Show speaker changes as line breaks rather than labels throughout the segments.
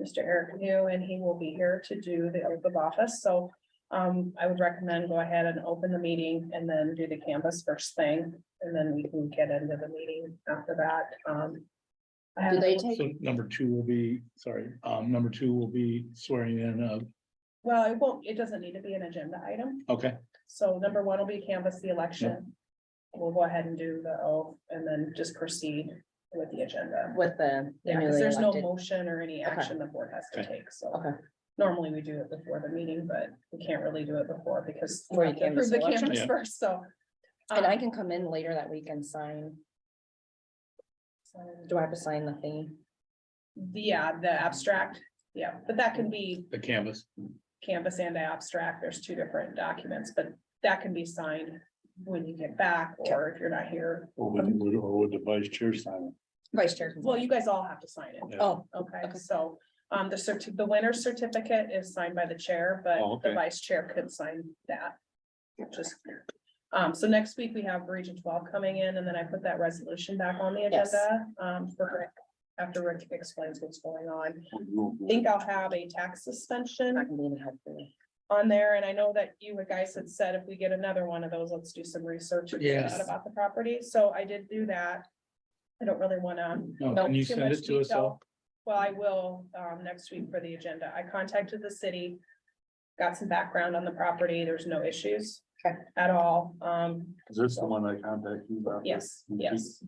Mr. Eric New, and he will be here to do the oath of office, so um, I would recommend go ahead and open the meeting and then do the canvas first thing, and then we can get into the meeting after that, um. I
Do
have-
they take,
So number two will be, sorry, um, number two will be swearing in, uh,
Well, it won't, it doesn't need to be an agenda item.
okay,
So number one will be canvass the election. We'll go ahead and do the oath and then just proceed with the agenda.
with the. the
Yeah, 'cause
newly
there's no
elected?
motion or any action the board has to
Okay.
take, so.
Okay.
Normally we do it before the meeting, but we can't really do it before because. we
Before you
have to
canvass
approve the
the election.
canvas
Yeah.
First, so.
And I
um,
can come in later that week and sign.
so-
Do I have to sign the thing?
um, Yeah, the abstract, yeah, but that can be
the canvas.
canvas and abstract. There's two different documents, but that can be signed when you get back or if you're not here.
Or
would-
or would the vice chair sign
Vice Chair. can
Well,
sign.
you guys all have to sign it.
Yeah.
Oh,
Okay,
Okay.
so, um, the certi- the winner's certificate is signed by the chair,
Oh,
but
okay.
the vice chair could sign that. Just, um, so next week we have region twelve coming in and then I put that resolution back on the
Yes.
agenda, um, for Rick. After Rick explains what's going on, I
it?
think I'll have a tax
I
suspension
can be in help for you.
on there. And I know that you guys had said if we get another one of those, let's do some research. and find out
Yes.
About the property, so I did do that. I don't really wanna
No,
no,
can you
too
send
much
it to us
detail.
all?
Well, I will, um, next week for the agenda. I contacted the city. Got some background on the property. There's no issues.
Okay.
At all. Um,
Is this
the
one I contacted you about?
yes,
Mhm.
yes.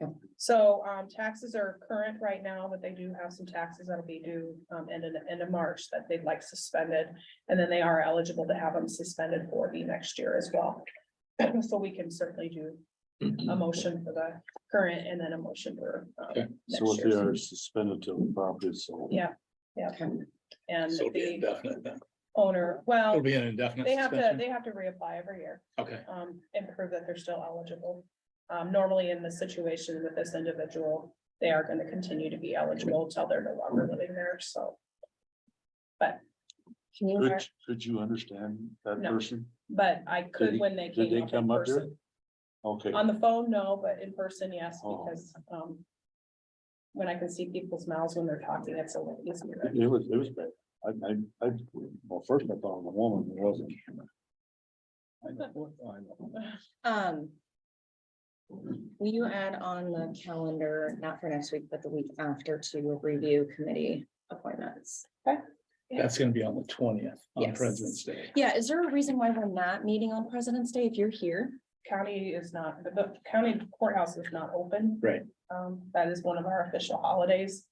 Yeah.
So, um, taxes are current right now, but they do have some taxes that'll be due, um, end of, end of March that they'd like suspended. And then they are eligible to have them suspended for the next year as well. So we can certainly do a motion for the current and then a motion for,
Okay.
um,
So
next
if they
year's.
are suspended to the property, so.
Yeah. And
So uh, it'll be
the
indefinite then.
owner,
It'll
well,
be an indefinite
they have to,
suspension.
they have to reapply every year,
Okay,
um, and prove that they're still eligible. Um, normally in the situation with this individual, they are gonna continue to be eligible till they're no longer living there, so.
Can you,
Could,
mark-
could you understand that
No.
person?
But I could
he-
when they
Did
came
they
up in
come up here?
person.
Okay,
On the phone, no, but in person, yes,
Oh.
because, um. When I can see people's mouths when they're talking, it's a little easier.
it was, it was bad. I, I, I, well, first I thought it was a woman, it wasn't. I know, I know.
um. Will you add on the calendar, not for next week, but the week after to review committee appointments?
that's gonna be on the twentieth, on
Yes.
President's Day.
Yeah, is there a reason why we're not meeting on President's Day if you're here?
County is not, the- the county courthouse is not open.
Right.
Um, that is one of our official holidays.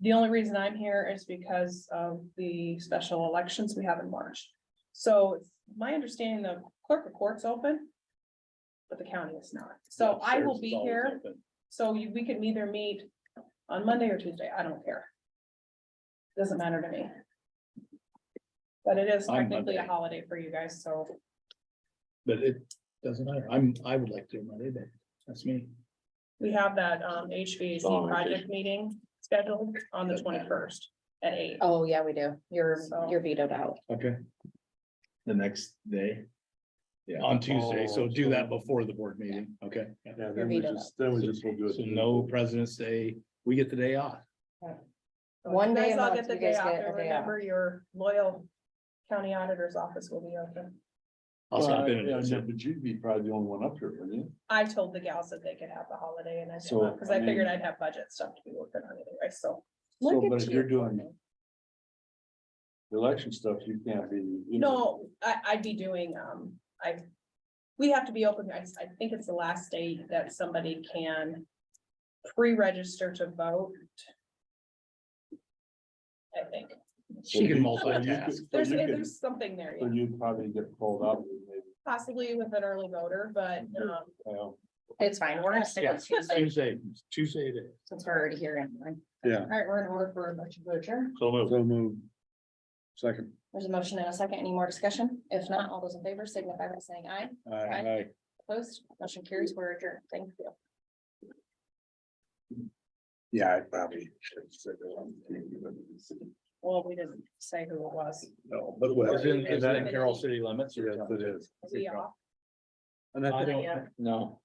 The only reason I'm here is because of the special elections we have in March. So it's my understanding the clerk of court's open. But the county is not. So I will
Upstairs
be
is always
here,
open.
so you- we can either meet on Monday or Tuesday. I don't care. Doesn't matter to me. But it is
On
technically a
Monday.
holiday for you guys, so.
But it doesn't matter. I'm, I would like to do Monday, but that's me.
We have that um HVAC
Oh,
project meeting scheduled on the
Doesn't matter.
twenty-first at eight.
Oh, yeah, we do. You're,
So-
you're vetoed out.
Okay,
the next day. Yeah.
on Tuesday, so
Oh,
do
so-
that before the board meeting, okay? yeah.
Yeah, then we
Revito.
just, then we just will do it.
So no President's Day, we get the day off.
So
One
you guys
day a
all
month,
get the
you
day
guys
off,
get a
and
day off.
Remember, your loyal county auditor's office will be open.
I'll stop in.
Yeah,
and
yeah,
visit.
But you'd be probably the only one up here, wouldn't you?
I told the gals that they could have the holiday and I did
So,
not, because
I
I figured I'd
mean-
have budget stuff to be working on anyway, so.
So,
Look
but
at
if you're
you.
doing the election stuff, you can't be. you know,
No, I, I'd be doing, um, I, we have to be open, I, I think it's the last day that somebody can pre-register to vote. I think,
She
so you could-
can multitask.
so
there's,
you could-
there's something there,
So
yeah.
you'd probably get pulled up, maybe,
possibly with an early voter, but, um,
well,
It's fine. We're gonna stick
Yeah,
with Tuesday
Tuesday, Tuesday it is.
since we're already here anyway.
Yeah.
All right, we're in order for a motion to adjourn.
So moved. So moved. Second.
There's a motion and a second. Any more discussion? If not, all those in favor signify by saying aye.
Uh,
Aye. Opposed, motion carries. We're adjourned. Thank you.
Yeah, I probably should have said that.
well, we didn't say who it was.
No, but
Is it,
well.
is it in Carroll city limits? or
Yes,
something?
it is.
Was he off?
And I
I
think-
don't,
No,